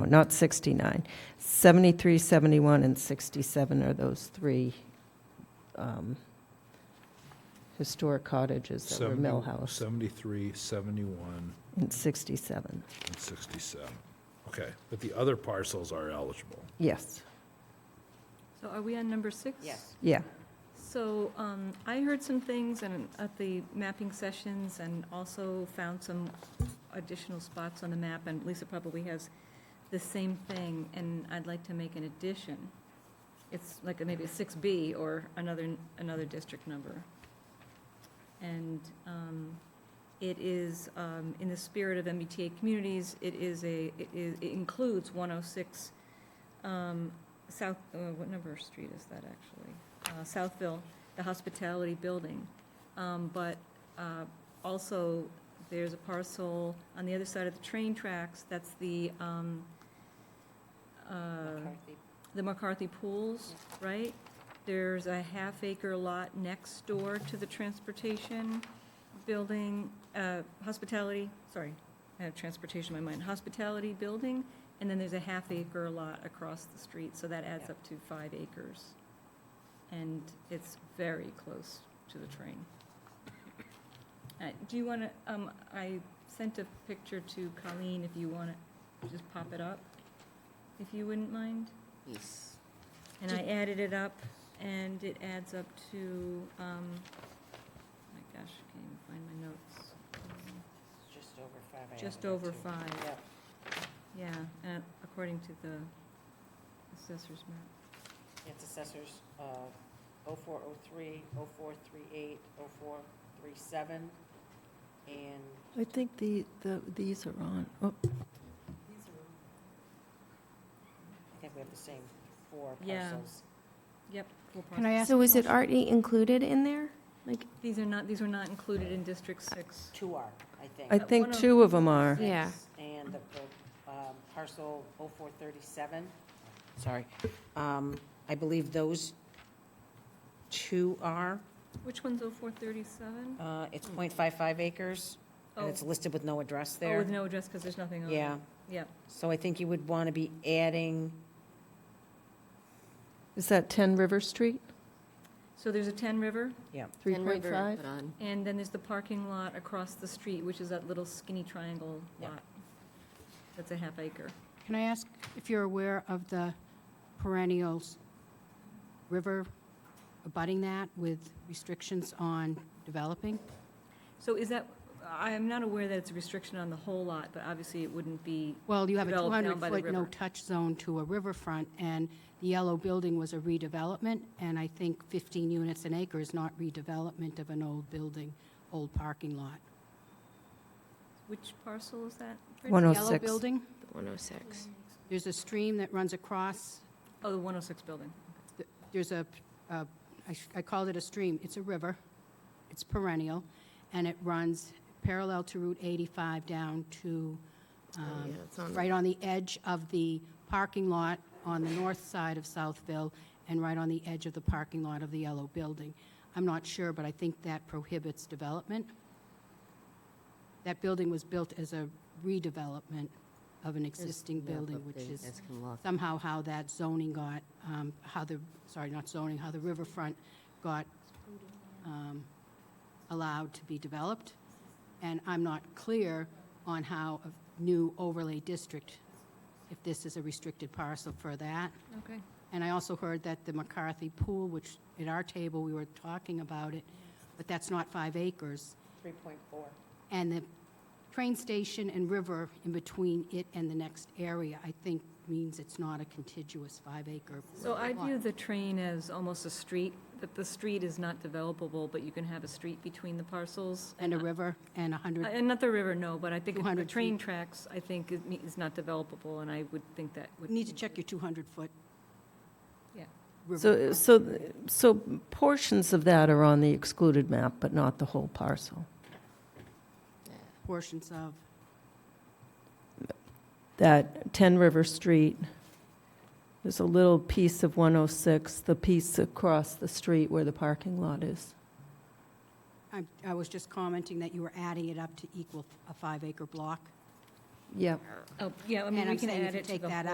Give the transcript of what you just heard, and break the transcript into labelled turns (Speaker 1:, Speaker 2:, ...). Speaker 1: Oh, not 69. 73, 71, and 67 are those three um, historic cottages that were
Speaker 2: 70
Speaker 1: mill house,
Speaker 2: 73, 71,
Speaker 1: and 67.
Speaker 2: and 67. Okay, but the other parcels are eligible.
Speaker 1: Yes,
Speaker 3: So are we on number six?
Speaker 4: Yes.
Speaker 1: yeah.
Speaker 3: So um, I heard some things and at the mapping sessions and also found some additional spots on the map, and Lisa probably has the same thing, and I'd like to make an addition. It's like a- maybe a six B or another, another district number. And um, it is, um, in the spirit of MBTA communities, it is a, it is- it includes one oh six South, uh, what number street is that actually? uh, Southville, the hospitality building. Um, But uh, also, there's a parcel on the other side of the train tracks, that's the, um, uh, the McCarthy Pools, right? There's a half-acre lot next door to the transportation building, uh, hospitality, sorry, I have transportation in my mind, hospitality building, and then there's a half-acre lot across the street, so that adds up to five acres. And it's very close to the train. Uh, Do you want to, um, I sent a picture to Colleen, if you want to just pop it up, if you wouldn't mind?
Speaker 4: Yes.
Speaker 3: And I added it up, and it adds up to, um, oh my gosh, I can't even find my notes. Um,
Speaker 4: Just over five. I
Speaker 3: Just
Speaker 4: added up
Speaker 3: over
Speaker 4: to.
Speaker 3: five,
Speaker 4: Yep.
Speaker 3: yeah, and according to the assessor's map.
Speaker 4: It's assessors, uh, oh four, oh three, oh four, three eight, oh four, three seven, and
Speaker 1: I think the, the, these are on. Oh,
Speaker 4: I think we have the same four
Speaker 3: Yeah.
Speaker 4: parcels.
Speaker 3: Yep. full
Speaker 5: Can I
Speaker 3: parcel.
Speaker 5: ask?
Speaker 6: So
Speaker 5: a
Speaker 6: is it
Speaker 5: question?
Speaker 6: already included in there? Like,
Speaker 3: These are not, these were not included in District Six.
Speaker 4: Two are, I
Speaker 1: I
Speaker 4: think.
Speaker 3: Uh,
Speaker 1: think
Speaker 3: one of-
Speaker 1: two of them are.
Speaker 6: Yeah.
Speaker 4: And the, the, um, parcel oh four thirty-seven, sorry, um, I believe those two are,
Speaker 3: Which one's oh four thirty-seven?
Speaker 4: uh, it's point five five acres, and it's
Speaker 3: Hmm. Oh.
Speaker 4: listed with no address
Speaker 3: Oh,
Speaker 4: there.
Speaker 3: with no address, because there's nothing on it.
Speaker 4: Yeah,
Speaker 3: Yep,
Speaker 4: so I think you would want to be adding,
Speaker 1: Is that 10 River Street,
Speaker 3: so there's a Ten River,
Speaker 4: yeah,
Speaker 1: 3.5?
Speaker 3: and then there's the parking lot across the street, which is that little skinny triangle
Speaker 4: Yeah.
Speaker 3: lot. That's a half acre.
Speaker 5: Can I ask if you're aware of the perennials river abutting that with restrictions on developing?
Speaker 3: So is that, I am not aware that it's a restriction on the whole lot, but obviously it wouldn't be,
Speaker 5: Well, you have a
Speaker 3: Developed down by the
Speaker 5: 200-foot
Speaker 3: river.
Speaker 5: no-touch zone to a riverfront, and the yellow building was a redevelopment, and I think 15 units an acre is not redevelopment of an old building, old parking lot.
Speaker 3: which parcel is that? Fred?
Speaker 5: The Yellow
Speaker 1: 106.
Speaker 5: building,
Speaker 6: 106.
Speaker 5: there's a stream that runs across,
Speaker 3: Oh, the 106 building.
Speaker 5: there's a, a- I sh- I called it a stream, it's a river, it's perennial, and it runs parallel to Route 85 down to, um,
Speaker 6: Oh, yeah, it's on-
Speaker 5: right on the edge of the parking lot on the north side of Southville, and right on the edge of the parking lot of the yellow building. I'm not sure, but I think that prohibits development. That building was built as a redevelopment of an existing building, which is somehow how that zoning got, um, how the, sorry, not zoning, how the riverfront got um, allowed to be developed. And I'm not clear on how a new overlay district, if this is a restricted parcel for that.
Speaker 3: Okay.
Speaker 5: And I also heard that the McCarthy Pool, which at our table, we were talking about it, but that's not five acres.
Speaker 4: three point four.
Speaker 5: And the train station and river in between it and the next area, I think, means it's not a contiguous five-acre.
Speaker 3: So I
Speaker 5: oh lot.
Speaker 3: view the train as almost a street, that the street is not developable, but you can have a street between the parcels.
Speaker 5: And a river and a 100,
Speaker 3: And not the river, no, but I think the
Speaker 5: 200
Speaker 3: train
Speaker 5: feet.
Speaker 3: tracks, I think, is- is not developable, and I would think that would.
Speaker 5: you need to check your 200-foot
Speaker 3: Yeah.
Speaker 1: So,
Speaker 5: river.
Speaker 1: so, so portions of that are on the excluded map, but not the whole parcel.
Speaker 5: portions of,
Speaker 1: That 10 River Street, there's a little piece of 106, the piece across the street where the parking lot is.
Speaker 5: I, I was just commenting that you were adding it up to equal a five-acre block.
Speaker 1: Yep.
Speaker 3: Oh, yeah, I mean,
Speaker 5: And
Speaker 3: we
Speaker 5: I'm
Speaker 3: can
Speaker 5: saying if
Speaker 3: add
Speaker 5: you
Speaker 3: it to
Speaker 5: take
Speaker 3: the
Speaker 5: that